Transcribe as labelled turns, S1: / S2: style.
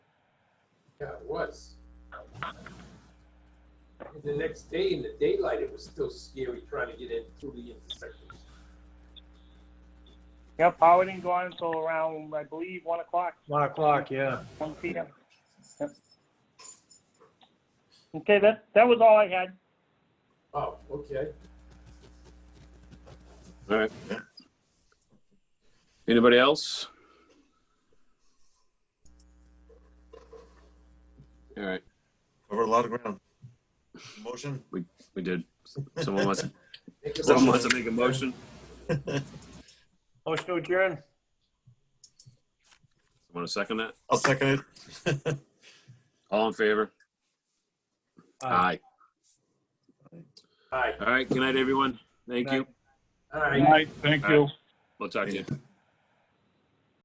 S1: Yeah, it was. And the next day, in the daylight, it was still scary trying to get in through the intersection.
S2: Yep, power didn't go on until around, I believe, one o'clock,
S3: One o'clock, yeah.
S2: one PM. Yep. Okay, that, that was all I had.
S1: Oh, okay.
S4: All right. Anybody else? All right,
S5: Covered a lot of ground. Motion?
S4: we did. Someone wants,
S1: Make a
S4: someone
S1: motion.
S4: wants to make a motion?
S3: Motion to adjourn.
S4: Want to second that?
S5: I'll second it.
S4: All in favor? Aye.
S1: All right,
S4: All right, good night, everyone. Thank you.
S1: all right.
S6: Good night, thank you.
S4: We'll talk to you.